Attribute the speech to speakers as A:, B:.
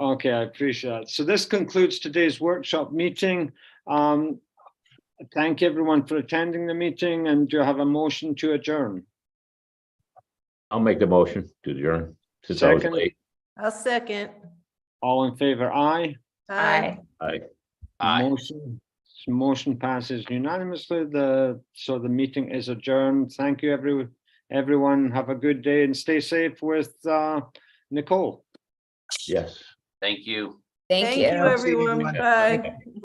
A: Okay, I appreciate it. So this concludes today's workshop meeting. Um, Thank everyone for attending the meeting and do you have a motion to adjourn?
B: I'll make the motion to adjourn, since I was
A: Second.
B: late.
C: I'll second.
A: All in favor, aye?
C: Aye.
B: Aye.
A: Motion motion passes unanimously. The, so the meeting is adjourned. Thank you, everyone. Everyone, have a good day and stay safe with uh, Nicole.
B: yes.
D: Thank you.
C: Thank you, everyone. Bye.